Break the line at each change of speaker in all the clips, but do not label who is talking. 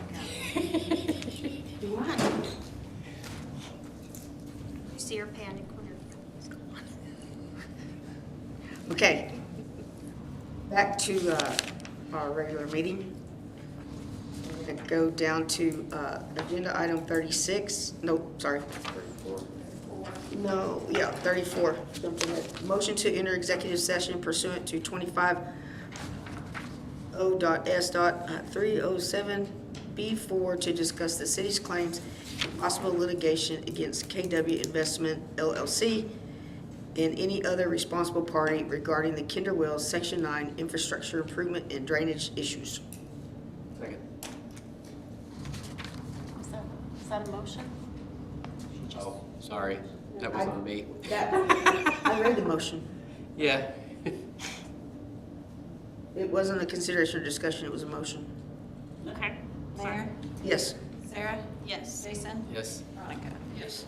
You want?
You see her panic when her phone's gone.
Okay. Back to uh, our regular meeting. We're going to go down to uh, agenda item 36, no, sorry. 34. No, yeah, 34. Jumped ahead. Motion to enter executive session pursuant to 25 O.S.307B4 to discuss the city's claims and possible litigation against KW Investment LLC and any other responsible party regarding the Kinder Wells Section 9 infrastructure improvement and drainage issues.
Is that, is that a motion?
Oh, sorry, that was on me.
I read the motion.
Yeah.
It wasn't a consideration or discussion, it was a motion.
Okay. Mayor?
Yes.
Sarah? Yes. Jason?
Yes.
Veronica?
Yes.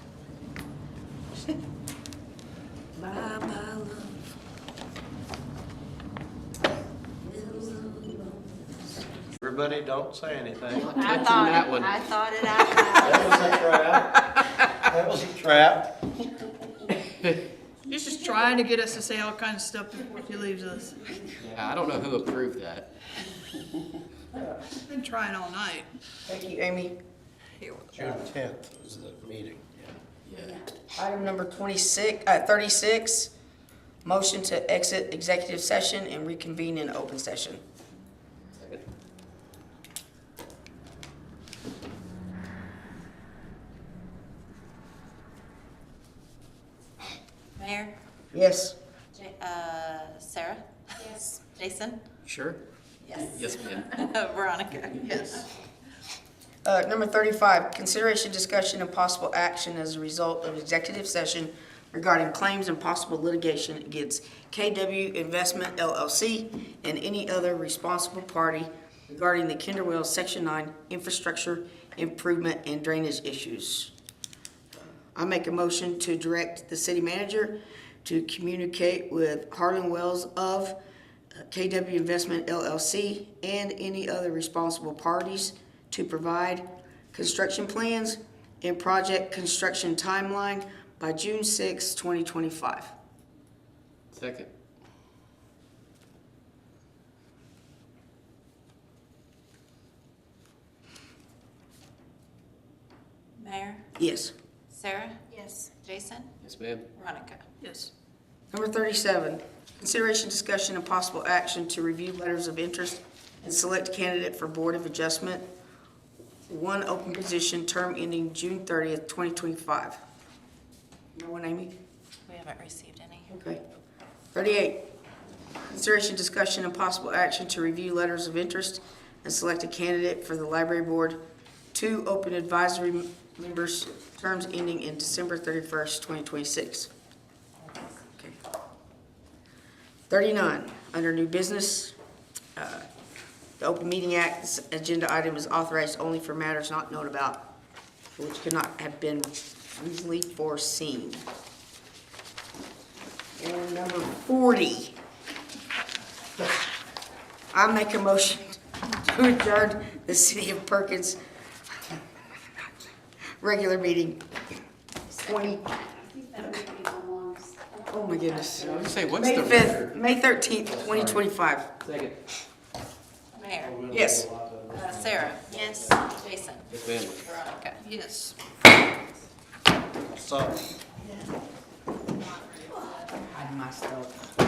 Everybody, don't say anything.
Not touching that one.
I thought it out.
That was a trap. That was a trap.
He's just trying to get us to say all kinds of stuff before she leaves us.
Yeah, I don't know who approved that.
Been trying all night.
Thank you, Amy.
June tenth is the meeting.
Yeah.
Item number 26, uh, 36, motion to exit executive session and reconvene in open session.
Mayor?
Yes.
J- Uh, Sarah? Yes. Jason?
Sure?
Yes.
Yes, ma'am.
Veronica?
Yes. Uh, number thirty-five, consideration, discussion, and possible action as a result of executive session regarding claims and possible litigation against KW Investment LLC and any other responsible party regarding the Kinder Wells Section Nine infrastructure improvement and drainage issues. I make a motion to direct the city manager to communicate with Harlan Wells of uh, KW Investment LLC and any other responsible parties to provide construction plans and project construction timeline by June 6, 2025.
Second.
Mayor?
Yes.
Sarah? Yes. Jason?
Yes, ma'am.
Veronica?
Yes.
Number 37, consideration, discussion, and possible action to review letters of interest and select candidate for Board of Adjustment, one open position, term ending June 30th, 2025. No one, Amy?
We haven't received any.
Okay. 38, consideration, discussion, and possible action to review letters of interest and select a candidate for the Library Board, two open advisory members, terms ending in December 31st, 2026. Okay. 39, under new business, uh, the Open Meeting Act, this agenda item is authorized only for matters not known about, which could not have been reasonably foreseen. And number 40, I make a motion to adjourn the City of Perkins regular meeting 20, oh my goodness.
I was gonna say, what's
May
the?
fifth, May thirteenth, twenty twenty-five.
Second.
Mayor?
Yes.
Uh, Sarah? Yes. Jason?
Yes, ma'am.
Veronica?
Yes.
So.
Hide myself.